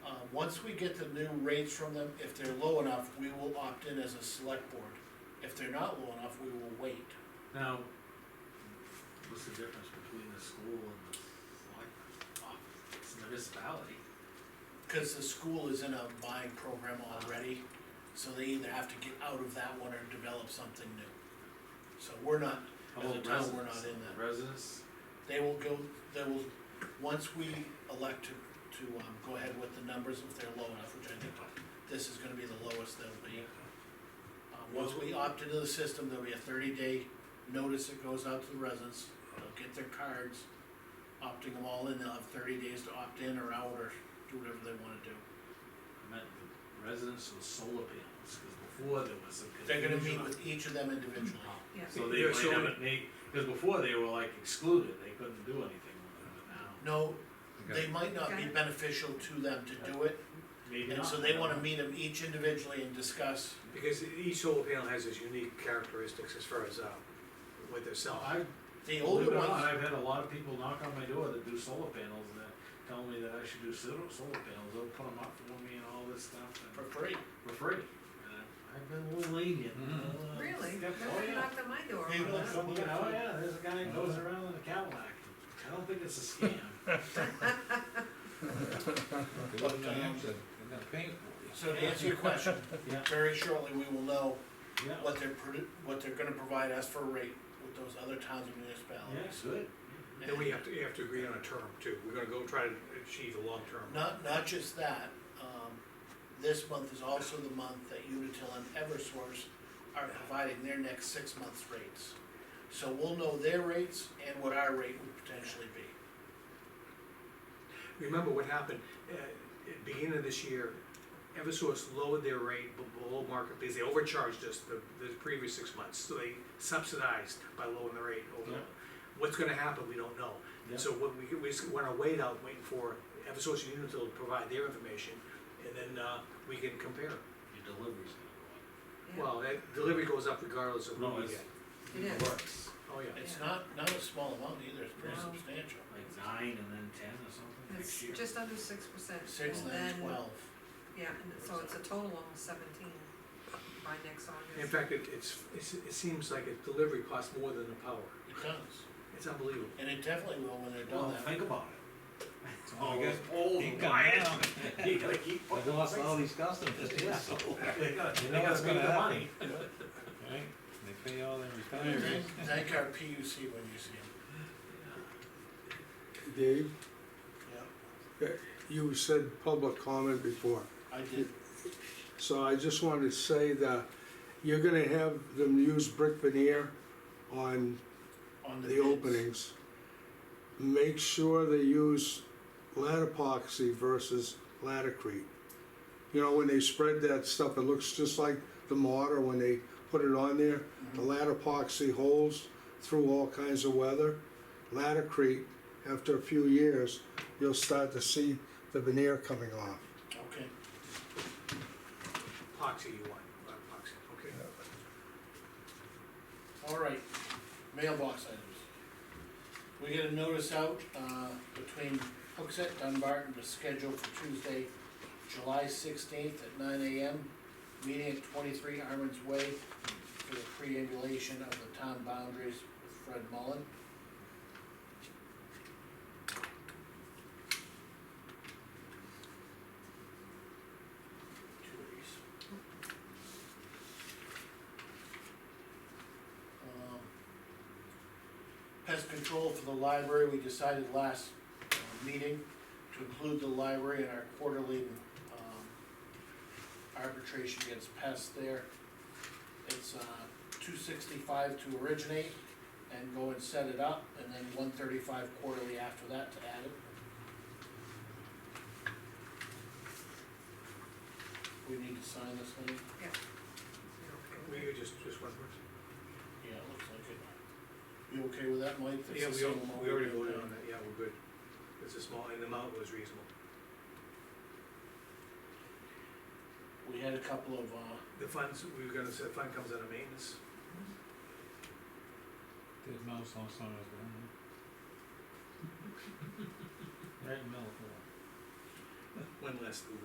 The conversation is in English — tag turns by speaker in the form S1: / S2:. S1: Um, Once we get the new rates from them, if they're low enough, we will opt in as a select board. If they're not low enough, we will wait.
S2: Now, what's the difference between the school and the selectmen's office? It's a municipality.
S1: Cause the school is in a buying program already, so they either have to get out of that one or develop something new. So we're not,
S2: How
S1: As a
S2: about
S1: town, we're
S2: residents?
S1: not in that.
S2: Residents,
S1: they will go, they will, once we elect to, to, um, go ahead with the numbers, if they're low enough, which I think this is gonna be the lowest they'll be. Uh, once we opt into the system, there'll be a thirty day notice that goes out to the residents, they'll get their cards, opting them all in, they'll have thirty days to opt in or out or do whatever they wanna do.
S2: I meant the residents with solar panels, cause before there was some
S1: They're
S2: confusion.
S1: gonna meet with each of them individually.
S3: Yeah.
S2: So they
S4: They're
S2: might
S4: so-
S2: haven't, they, cause before they were like excluded, they couldn't do anything with it, but now,
S1: No,
S4: Okay.
S1: they might not be
S3: Okay.
S1: beneficial to them to do it,
S2: maybe
S1: and
S2: not.
S1: so they wanna meet them each individually and discuss.
S4: Because each solar panel has its unique characteristics as far as, uh, what they're
S2: So
S4: selling.
S2: I,
S1: The
S2: believe it
S1: older
S2: or not,
S1: ones,
S2: I've had a lot of people knock on my door that do solar panels and that tell me that I should do solar, solar panels, they'll put them up for me and all this stuff and.
S1: for free,
S2: for free. And I- Uh, I've been a little lenient. Uh,
S3: Really?
S2: step- Oh,
S3: Nobody
S2: yeah.
S3: knocked on my door.
S1: Hey,
S2: Oh,
S1: look,
S2: yeah, look at- oh, yeah, there's a guy that goes around in a Cadillac. I don't think it's a scam.
S1: They wouldn't have answered. so to answer your question,
S2: Yeah.
S1: very shortly, we will know
S2: Yeah,
S1: what they're, produ- what they're gonna provide us for a rate with those other towns and
S2: yeah,
S1: municipalities.
S2: good.
S4: Then we have to, you have to agree on a term too, we're gonna go try to achieve a long term.
S1: Not, not just that, um, this month is also the month that Unitil and Eversource are providing their next six months rates. So we'll know their rates and what our rate would potentially be.
S4: Remember what happened, uh, at the beginning of this year, Eversource lowered their rate be- below market because they overcharged us the, the previous six months, so they subsidized by lowering the rate over.
S2: Yeah.
S4: What's gonna happen, we don't know.
S2: Yeah.
S4: So what we, we just wanna wait out, waiting for Eversource and Unitil to provide their information, and then, uh, we can compare.
S2: Your delivery's gonna
S3: Yeah.
S4: Well, that delivery goes up regardless of
S2: go up.
S4: what
S2: No,
S4: we
S2: it's,
S4: get.
S2: it
S3: Yeah.
S2: works.
S4: Oh, yeah.
S1: It's not, not a small amount either, it's pretty
S3: No.
S1: substantial,
S2: Like nine and then ten or something
S3: It's
S2: next year.
S3: just under six percent.
S1: six, nine, twelve.
S3: Yeah, and so it's a total of seventeen by next
S4: In
S3: August.
S4: fact, it, it's, it's, it seems like a delivery costs more than the power.
S1: It does,
S4: It's unbelievable.
S1: and it definitely will when they're
S2: Well,
S1: done that.
S2: think about it.
S5: Oh,
S2: All
S5: we got
S2: those
S5: old
S2: You
S5: and
S2: gotta-
S5: wild.
S2: You gotta keep.
S5: I've
S2: putting
S5: lost
S2: things-
S5: all these customers,
S2: Yeah.
S5: so,
S2: They gotta,
S5: You
S2: they
S5: know
S2: gotta
S5: what's
S2: spend
S5: gonna
S2: the
S5: happen.
S2: money.
S5: right, they pay all their
S1: Thank
S5: retirees.
S1: thank our PUC when you see him.
S6: Dave,
S1: Yeah,
S6: you said public comment before,
S1: I did.
S6: so I just wanted to say that you're gonna have them use brick veneer on
S1: On
S6: the
S1: bids.
S6: openings. Make sure they use lat epoxy versus latacrete. You know, when they spread that stuff, it looks just like the mortar when they put it on there. The lat epoxy holds through all kinds of weather. Latacrete, after a few years, you'll start to see the veneer coming off.
S1: Mm-hmm. Okay,
S4: Epoxy you want, not epoxy, okay.
S1: all right, mailbox items. We get a notice out, uh, between Hooksett, Dunbarton, to schedule for Tuesday, July sixteenth at nine AM. Meeting at twenty-three Armands Way for the preambulation of the town boundaries with Fred Mullen. Two of these. Um, Pest control for the library, we decided last uh, meeting to include the library in our quarterly um, arbitration against pests there. It's uh, two sixty-five to originate and go and set it up, and then one thirty-five quarterly after that to add it. We need to sign this thing?
S4: We could just, just one person.
S1: Yeah, it looks like it. You okay with that, Mike? That's
S4: Yeah,
S1: the same
S4: we, al-
S1: amount
S4: we already
S1: did
S4: voted
S1: there.
S4: on that, yeah, we're good. It's a small, and the amount was reasonable.
S1: We had a couple of, uh,
S4: The funds, we were gonna say, the fund comes out of maintenance.
S5: Did mouse on some of them.
S2: Right in the middle of the-
S4: One last,